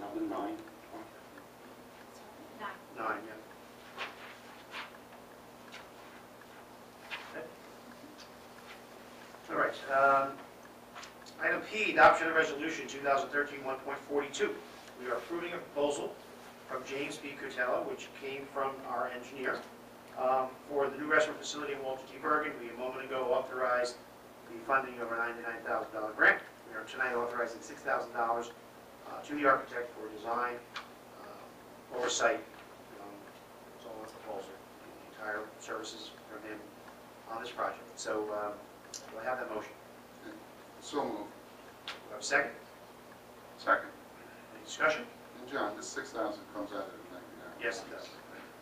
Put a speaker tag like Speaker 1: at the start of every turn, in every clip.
Speaker 1: Nine?
Speaker 2: Nine.
Speaker 1: Nine, yeah. Okay. All right. um, Item P, adoption of resolution 2013-1.42. We are approving a proposal from James B. Cutella, which came from our engineer, um, for the new restaurant facility in Walter T. Bergen. We a moment ago authorized the funding of a $99,000 grant. We are tonight authorizing $6,000 uh, to the architect for design uh, oversight. um, It's all in the proposal, the entire services from him on this project. So um, do I have that motion?
Speaker 3: So moved.
Speaker 1: Do I have a second?
Speaker 3: Second.
Speaker 1: Any discussion?
Speaker 3: And John, the six thousand comes out of the ninety-nine?
Speaker 1: Yes, it does.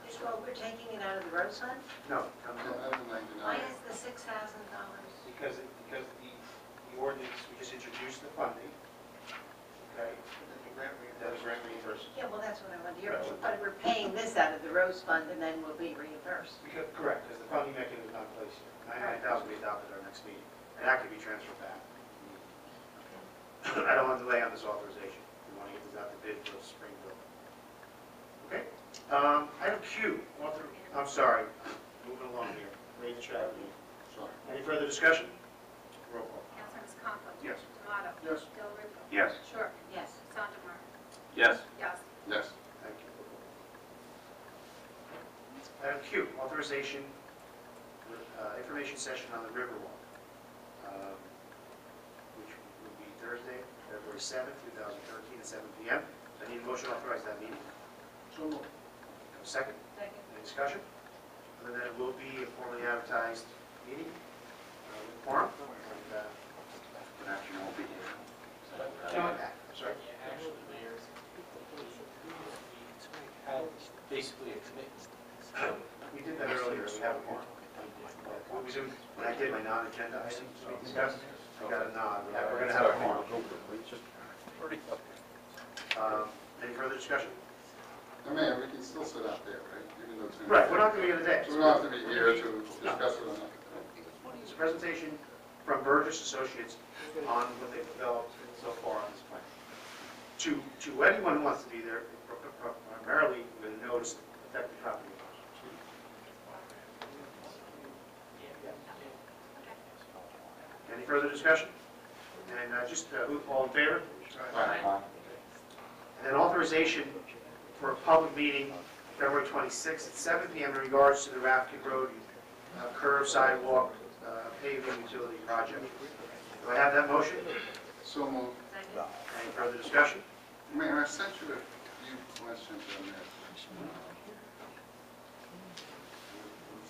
Speaker 4: Just while we're taking it out of the road fund,
Speaker 1: No,
Speaker 3: Comes
Speaker 1: come on.
Speaker 3: out of the
Speaker 4: why
Speaker 3: ninety-nine?
Speaker 4: is the six thousand dollars?
Speaker 1: Because, it- because the, the ordinance, we just introduced the funding, okay? That was grant reimbursement.
Speaker 4: Yeah, well, that's what I wanted to hear,
Speaker 1: Right.
Speaker 4: but we're paying this out of the road fund and then we'll be reimbursed.
Speaker 1: Because, correct, because the funding mechanism is not in place yet. Ninety-nine thousand will be adopted at our next meeting, and that could be transferred back. I don't want to delay on this authorization. We want to get this out to bid for Springfield. Okay? Um, Item Q, author, I'm sorry, moving along here. Read the track.
Speaker 3: Sorry.
Speaker 1: Any further discussion? Roll call.
Speaker 2: Councilors Conklin.
Speaker 1: Yes.
Speaker 2: Tomato.
Speaker 3: Yes.
Speaker 2: Del Rippe.
Speaker 5: Yes.
Speaker 2: Shortman.
Speaker 4: Yes,
Speaker 2: Sondemire.
Speaker 5: Yes.
Speaker 2: Yes.
Speaker 3: Yes.
Speaker 1: Thank you. Item Q, authorization, uh, information session on the Riverwalk, um, which will be Thursday, February 7th, 2013, at 7 PM. I need a motion to authorize that meeting.
Speaker 3: So moved.
Speaker 1: Have a Second,
Speaker 4: second,
Speaker 1: any discussion? Other than it will be a formally advertised meeting, uh, with forum. and, uh,
Speaker 5: But actually, won't be here.
Speaker 1: I'm sorry.
Speaker 6: Actually, Mayor, we had basically a commitment.
Speaker 1: We did that earlier, we have a forum. What was it, when I did my non-agenda items, we discussed, I got a nod, We have- we're gonna have a forum. Um, Any further discussion?
Speaker 3: Now, Mayor, we can still sit out there, right? Even though it's in-
Speaker 1: Right, we're not gonna be here today.
Speaker 3: We don't have to be here to discuss it or not.
Speaker 1: It's a presentation from Burgess Associates on what they've developed so far on this plan. To, to anyone who wants to be there, pr- pr- pr- primarily with a notice affecting property owners. Any further discussion? And uh, just, uh, who, all in favor? And then authorization for a public meeting February 26th at 7 PM in regards to the Rafkin Road uh, curb sidewalk uh, paving utility project. Do I have that motion?
Speaker 3: So moved.
Speaker 4: second,
Speaker 1: Any further discussion?
Speaker 3: Mayor, I sent you a few questions on that.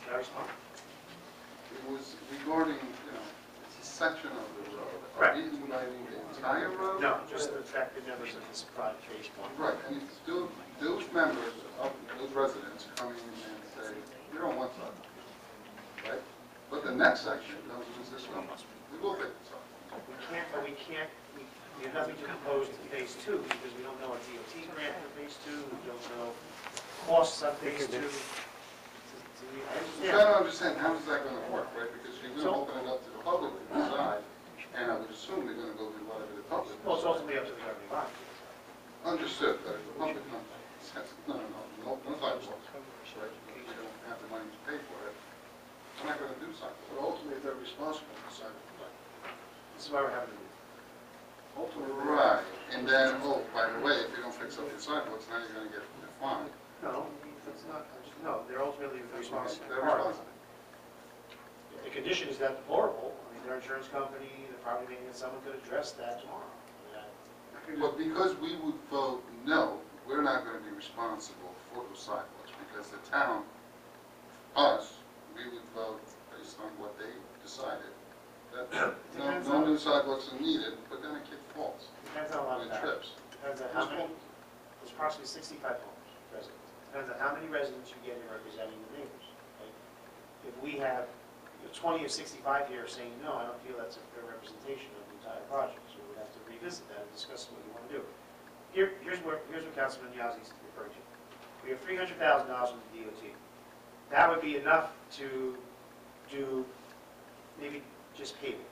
Speaker 1: Can I respond?
Speaker 3: It was regarding, you know, it's a section of the road.
Speaker 1: Right.
Speaker 3: Are we lighting the entire road?
Speaker 1: No, just the fact that members of this private phase one.
Speaker 3: Right, and it's still, those members of those residents come in and say, we don't want that, right? But the next section comes with this one, we will take this off.
Speaker 1: We can't, but we can't, we we have nothing to propose to phase two because we don't know a DOT grant for phase two, we don't know costs on phase two.
Speaker 3: So I don't understand, how is that gonna work, right? Because you're
Speaker 1: So-
Speaker 3: gonna open it up to the public to decide, and I would assume they're gonna go do whatever the public.
Speaker 1: Well, it's ultimately up to the governing body.
Speaker 3: Understood, but if the public, not, no, no, no, no sidewalks, right? Because they don't have the money to pay for it, they're not gonna do sidewalks. But ultimately, they're responsible for sidewalks.
Speaker 1: This is why we're having the meeting.
Speaker 3: Right, and then, oh, by the way, if you don't fix up your sidewalks, now you're gonna get fined.
Speaker 1: No, that's not, no, they're ultimately responsible.
Speaker 3: They're responsible.
Speaker 1: If The condition is that deplorable, I mean, their insurance company, the property maintenance, someone could address that tomorrow. I mean,
Speaker 3: But because we would vote no, we're not gonna be responsible for those sidewalks, because the town, us, we would vote based on what they decided. That, no,
Speaker 1: Depends
Speaker 3: no
Speaker 1: on-
Speaker 3: new sidewalks are needed, but then a kid falls,
Speaker 1: I- Depends on a lot of
Speaker 3: and
Speaker 1: factors.
Speaker 3: trips.
Speaker 1: Depends on how many, there's approximately 65 homes, residents. Depends on how many residents you get in representing the neighbors. right? If we have you know, 20 or 65 here saying, no, I don't feel that's a fair representation of the entire project, so we'd have to revisit that and discuss what you want to do. Here, here's where, here's what Councilman Yazdi's referring to. We have $300,000 from the DOT. That would be enough to do maybe just paving,